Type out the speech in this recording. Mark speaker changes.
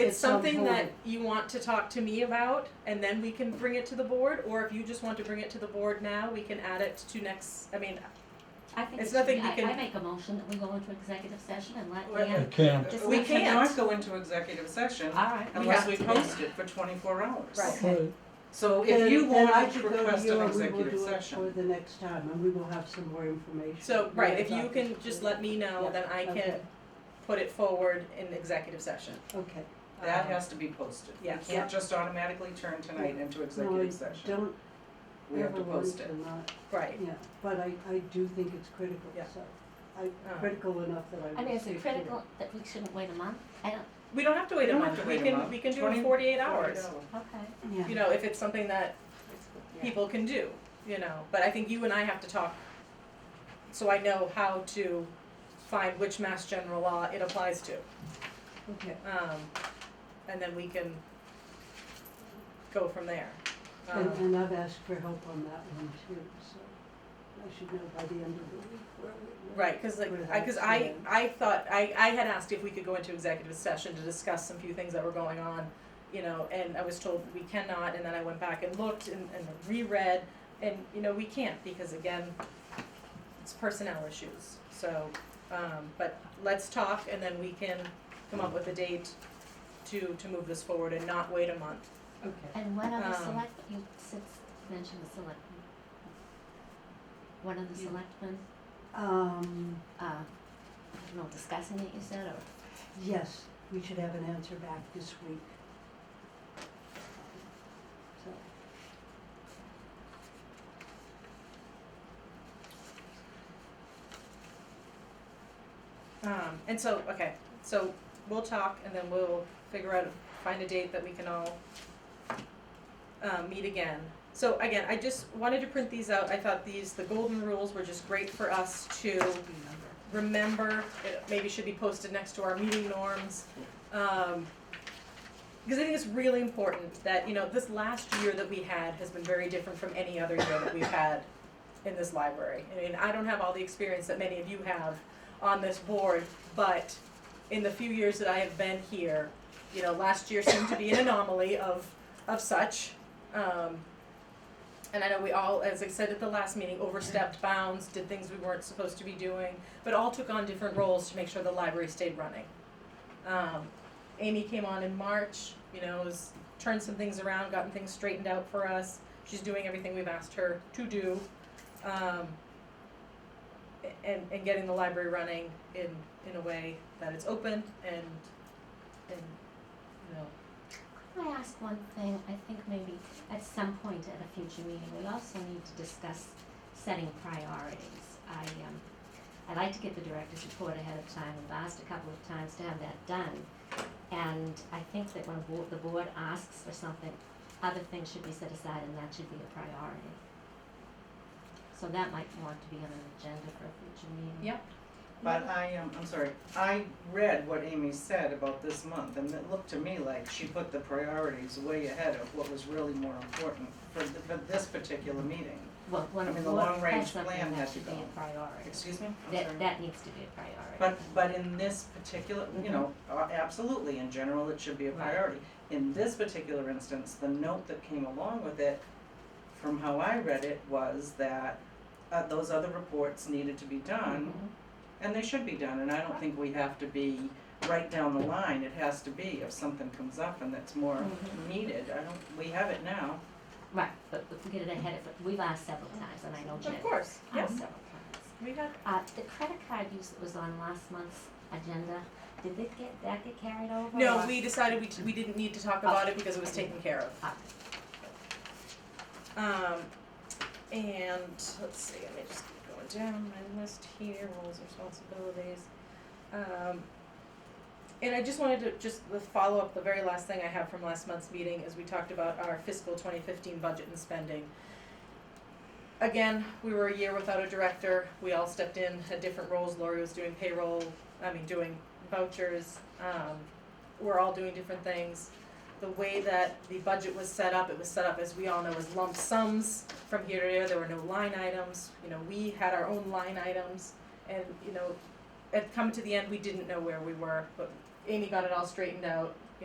Speaker 1: it's
Speaker 2: on
Speaker 1: something
Speaker 2: hold.
Speaker 1: that you want to talk to me about, and then we can bring it to the board, or if you just want to bring it to the board now, we can add it to next, I mean,
Speaker 2: I think
Speaker 1: it's
Speaker 2: it should
Speaker 1: nothing
Speaker 2: be-
Speaker 1: we
Speaker 2: I-
Speaker 1: can-
Speaker 2: I make a motion that we go into executive session and let
Speaker 3: Well,
Speaker 2: Leanne,
Speaker 4: can't.
Speaker 2: Just
Speaker 3: We
Speaker 2: let
Speaker 1: them
Speaker 3: cannot
Speaker 1: know.
Speaker 3: go into executive session
Speaker 2: alright.
Speaker 3: unless
Speaker 1: have
Speaker 3: we
Speaker 2: to do
Speaker 3: post
Speaker 2: that.
Speaker 3: it for twenty-four hours.
Speaker 1: Right.
Speaker 4: Right.
Speaker 3: So
Speaker 5: Then-
Speaker 3: if you
Speaker 5: then I
Speaker 3: want to
Speaker 5: could go
Speaker 3: request
Speaker 5: you
Speaker 3: an
Speaker 5: and we will
Speaker 3: executive
Speaker 5: do it um, For
Speaker 3: session,
Speaker 5: the next time, and we will have some more information.
Speaker 1: so, right, if you
Speaker 5: about
Speaker 1: can
Speaker 5: this.
Speaker 1: just let me know, then I
Speaker 5: Yeah,
Speaker 1: can
Speaker 5: okay,
Speaker 1: put it forward in executive session.
Speaker 5: Okay,
Speaker 3: that
Speaker 1: Um,
Speaker 3: has to be posted. We
Speaker 1: yes.
Speaker 3: can't just automatically turn tonight into
Speaker 5: no,
Speaker 3: executive
Speaker 5: I
Speaker 3: session.
Speaker 5: don't
Speaker 3: We have
Speaker 5: ever
Speaker 3: to
Speaker 5: want
Speaker 3: post it.
Speaker 5: to not,
Speaker 1: Right,
Speaker 5: yeah, but I, I do think it's critical,
Speaker 1: Yeah.
Speaker 5: so, I,
Speaker 1: Uh.
Speaker 5: critical enough that I would
Speaker 2: I mean, is
Speaker 5: say
Speaker 2: it
Speaker 5: to
Speaker 2: critical that we shouldn't wait a month? I don't,
Speaker 1: we don't have to wait
Speaker 3: We
Speaker 1: a
Speaker 3: don't have
Speaker 1: month,
Speaker 3: to
Speaker 1: we
Speaker 3: wait a
Speaker 1: can,
Speaker 3: month.
Speaker 1: we can do it
Speaker 3: 20
Speaker 1: in forty-eight hours.
Speaker 2: okay.
Speaker 5: it. Yeah.
Speaker 1: You know, if it's something that
Speaker 2: Yeah.
Speaker 1: people can do, you know, but I think you and I have to talk, so I know how to find which mass general law it applies to.
Speaker 5: Okay,
Speaker 1: Um, and then we can go from there.
Speaker 5: and,
Speaker 1: Um,
Speaker 5: and I've asked for help on that one too, so I should know by the end of the week where we. where-
Speaker 1: Right, cause like,
Speaker 5: Where
Speaker 1: I, cause
Speaker 5: that's
Speaker 1: I,
Speaker 5: going.
Speaker 1: I thought, I, I had asked if we could go into executive session to discuss some few things that were going on, you know, and I was told we cannot, and then I went back and looked and, and reread, and, you know, we can't, because again, it's personnel issues, so, um, but let's talk, and then we can come up with a date to, to move this forward and not wait a month.
Speaker 5: Okay,
Speaker 2: And one other
Speaker 1: Um,
Speaker 2: select, you since mentioned the selectmen. One of the
Speaker 1: You-
Speaker 2: selectmen,
Speaker 5: um,
Speaker 2: uh, I don't know, discussing it, you said, or,
Speaker 5: yes, we should have an answer back this week. So.
Speaker 1: Um, and so, okay, so we'll talk and then we'll figure out, find a date that we can all uh, meet again. So again, I just wanted to print these out. I thought these, the golden rules were just great for us to remember. It maybe should be posted next to our meeting norms. Um, because I think it's really important that, you know, this last year that we had has been very different from any other year that we've had in this library. I mean, I don't have all the experience that many of you have, on this board, but in the few years that I have been here, you know, last year seemed to be an anomaly of, of such. Um, and I know we all, as I said at the last meeting, overstepped bounds, did things we weren't supposed to be doing, but all took on different roles to make sure the library stayed running. Um, Amy came on in March, you know, has turned some things around, gotten things straightened out for us. She's doing everything we've asked her to do. Um, and, and getting the library running in, in a way that it's open and, and, you know,
Speaker 2: can I ask one thing? I think maybe at some point at a future meeting, we also need to discuss setting priorities. I, um, I like to get the director's report ahead of time, I've asked a couple of times to have that done. And I think that when a bo- the board asks for something, other things should be set aside and that should be a priority. So that might want to be on an agenda for a future meeting.
Speaker 1: Yeah.
Speaker 3: But I, um, I'm sorry, I read what Amy said about this month, and it looked to me like she put the priorities way ahead of what was really more important for, th- for this particular meeting.
Speaker 2: Well, when
Speaker 3: I
Speaker 2: a
Speaker 3: mean, the
Speaker 2: board
Speaker 3: long-range
Speaker 2: has something,
Speaker 3: plan
Speaker 2: that
Speaker 3: had to
Speaker 2: should be
Speaker 3: go.
Speaker 2: a priority.
Speaker 3: Excuse me? I'm sorry.
Speaker 2: That, that needs to be a priority.
Speaker 3: But, but in this particular, you know, uh, absolutely, in general, it should be a
Speaker 2: Right.
Speaker 3: priority. In this particular instance, the note that came along with it, from how I read it, was that uh, those other reports needed to be done,
Speaker 2: Mhm.
Speaker 3: and they should be done, and I don't think we have to be right down the line, it has to be, if something comes up and that's more
Speaker 2: Mhm.
Speaker 3: needed, I don't, we have it now.
Speaker 2: Right, but if we get it ahead of, it- we've asked several times, and I know Jen
Speaker 1: of course, yeah,
Speaker 2: asked several times.
Speaker 1: we got,
Speaker 2: Uh, the credit card use that was on last month's agenda, did it get, that get carried over?
Speaker 1: no,
Speaker 2: or-
Speaker 1: we decided we, t- we didn't need to talk about it because it was taken care of.
Speaker 2: Uh,
Speaker 1: Um, and let's see, let me just keep going down my list here, roles, responsibilities. Um, and I just wanted to just the follow up the very last thing I have from last month's meeting is we talked about our fiscal 2015 budget and spending. Again, we were a year without a director. We all stepped in, had different roles. Lori was doing payroll, I mean, doing vouchers. Um, we're all doing different things the way that the budget was set up, it was set up, as we all know, as lump sums from here to there, there were no line items, you know, we had our own line items, and, you know, at come to the end, we didn't know where we were, but Amy got it all straightened out,